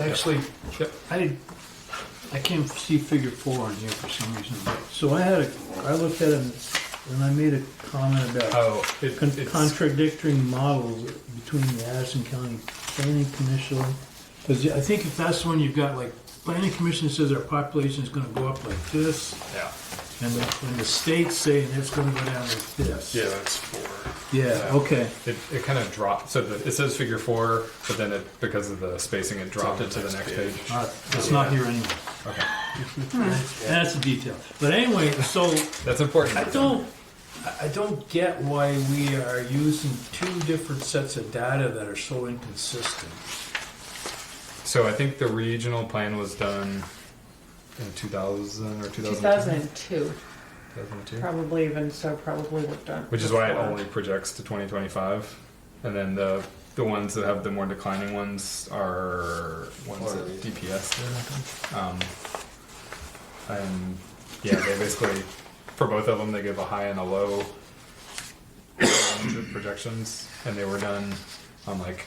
Actually, Yep. I did, I can't see figure four on here for some reason. So I had a, I looked at it and I made a comment about Oh, it, con- it's, contradictory models between the Addison County Planning Commission. Because I think if that's the one you've got, like, planning commission says our population is gonna go up like this, yeah, and the, and the state's saying it's gonna go down like this. yeah, that's four. Yeah, okay. It, it kind of dropped. So the, it says figure four, but then it because of the spacing, it dropped it to the next page. All right, Uh, It's not here anymore. Okay, That's a detail. But anyway, so that's important. I don't, I- I don't get why we are using two different sets of data that are so inconsistent. So I think the regional plan was done in 2000 or 2002. 2002, 2002. probably even so, probably worked on. which is why it before. only projects to 2025 and then the the ones that have the more declining ones are ones that dps um, and yeah they basically for both of them they give a high and a low range of projections and they were done on like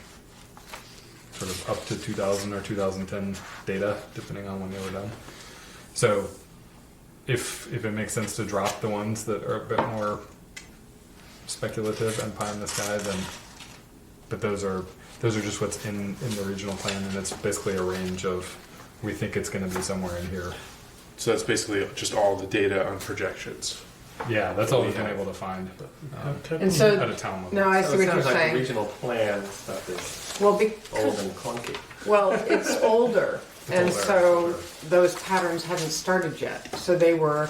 sort of up to 2000 or 2010 data depending on when they were done so if if it makes sense to drop the ones that are a bit more speculative and pie in the sky, then but those are those are just what's in in the regional plan, and it's basically a range of we think it's going to be somewhere in here. So that's basically just all the data on projections. Yeah, that's all we've been able to find um, And at so a town level. now I see So what it you're sounds like the saying. regional plan stuff is Well, old because, and clunky. well, it's older. And older, so older. those patterns hadn't started yet. So they were,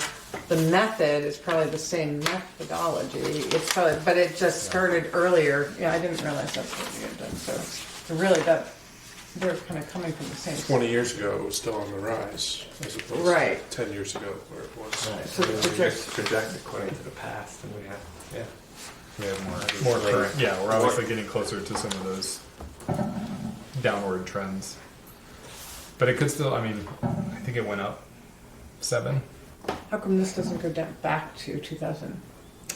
the method is probably the same methodology. It's probably, but it just started earlier. Yeah, I didn't realize that's what you had done, so, so really that, they're kind of coming from the same. Twenty years ago, it was still on the rise, as opposed Right. to ten years ago where it was. So the project- project according to the past, and we have yeah. we have more more current. Yeah, we're obviously getting closer to some of those downward trends, but it could still. I mean, I think it went up seven. How come this doesn't go down back to 2000?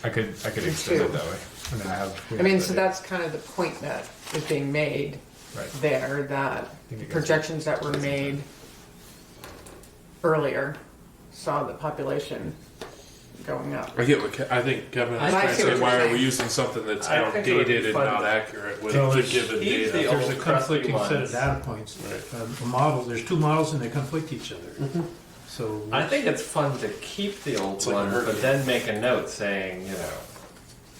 I could I could extend it that way. I mean, I have. we I have mean, the data. so that's kind of the point that is being made right. there, that think it goes- projections that were made earlier saw the population going up. I get what Ke- I think Kevin I is trying to see what say. you're Why are saying. we using something that's I think it would be outdated and fun not to- accurate with No, the it's- given he's data? the There's a old crusty conflicting set of ones. data points. Right. Um, A model, there's two models and they conflict each other. So, Mm-hmm. I think it's fun to keep the old like ones, herding. but then make a note saying, you know,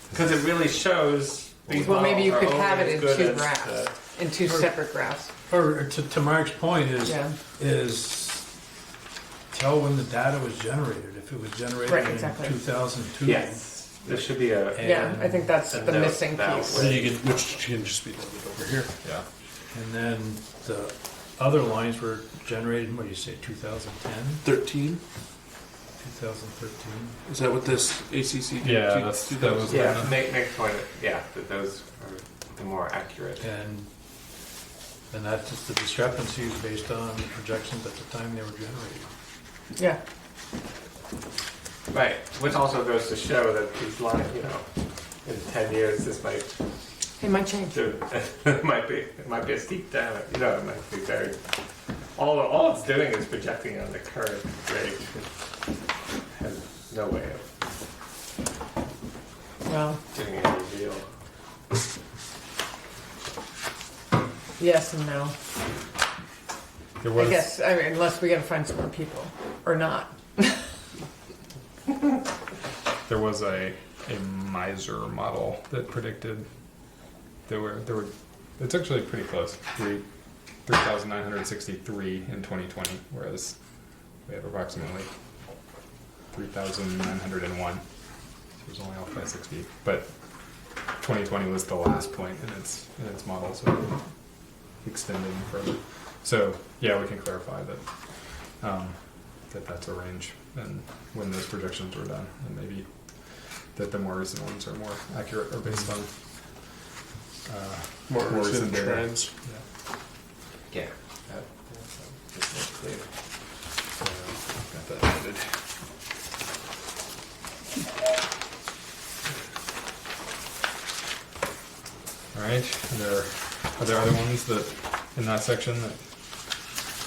because it really shows. These Well, maybe you models could are have only it as in good uh, two as the- graphs, in two separate graphs. or to, to Mark's point is, Yeah. is tell when the data was generated, if it was Right, generated in exactly. 2002. Yes, there should be a. Yeah, I think that's And the note missing that piece. way. Then you can, which can just be loaded over here. Yeah. And then the other lines were generated, what do you say, 2010, Thirteen. 2013? Is that what this ACC? Yeah, that's- that was- Yeah, make make point. of- Yeah, that those are the more accurate. And, and that's just the discrepancies based on the projections at the time they were generated. Yeah, Right, which also goes to show that these lines, you know, in ten years, this might, it might change. it might be, it might be a steep down, you know, it might be very, all, all it's doing is projecting on the current rate. It Has no way of Well, doing any real, yes and no. There I was guess, I mean, unless we gotta find some more people, or not. there was a a miser model that predicted there were there were it's actually pretty close three three thousand nine hundred sixty three in twenty twenty, whereas we have approximately three thousand nine hundred and one. So it was only off by six feet, but twenty twenty was the last point in its in its model, so we're extending further. So yeah, we can clarify that um, that that's a range and when those projections were done, and maybe that the more recent ones are more accurate or based on uh, More recent data. trends. Yeah. yeah. that- that's, um, just more clear. So, got that noted. All right. Are there are there other ones that in that section that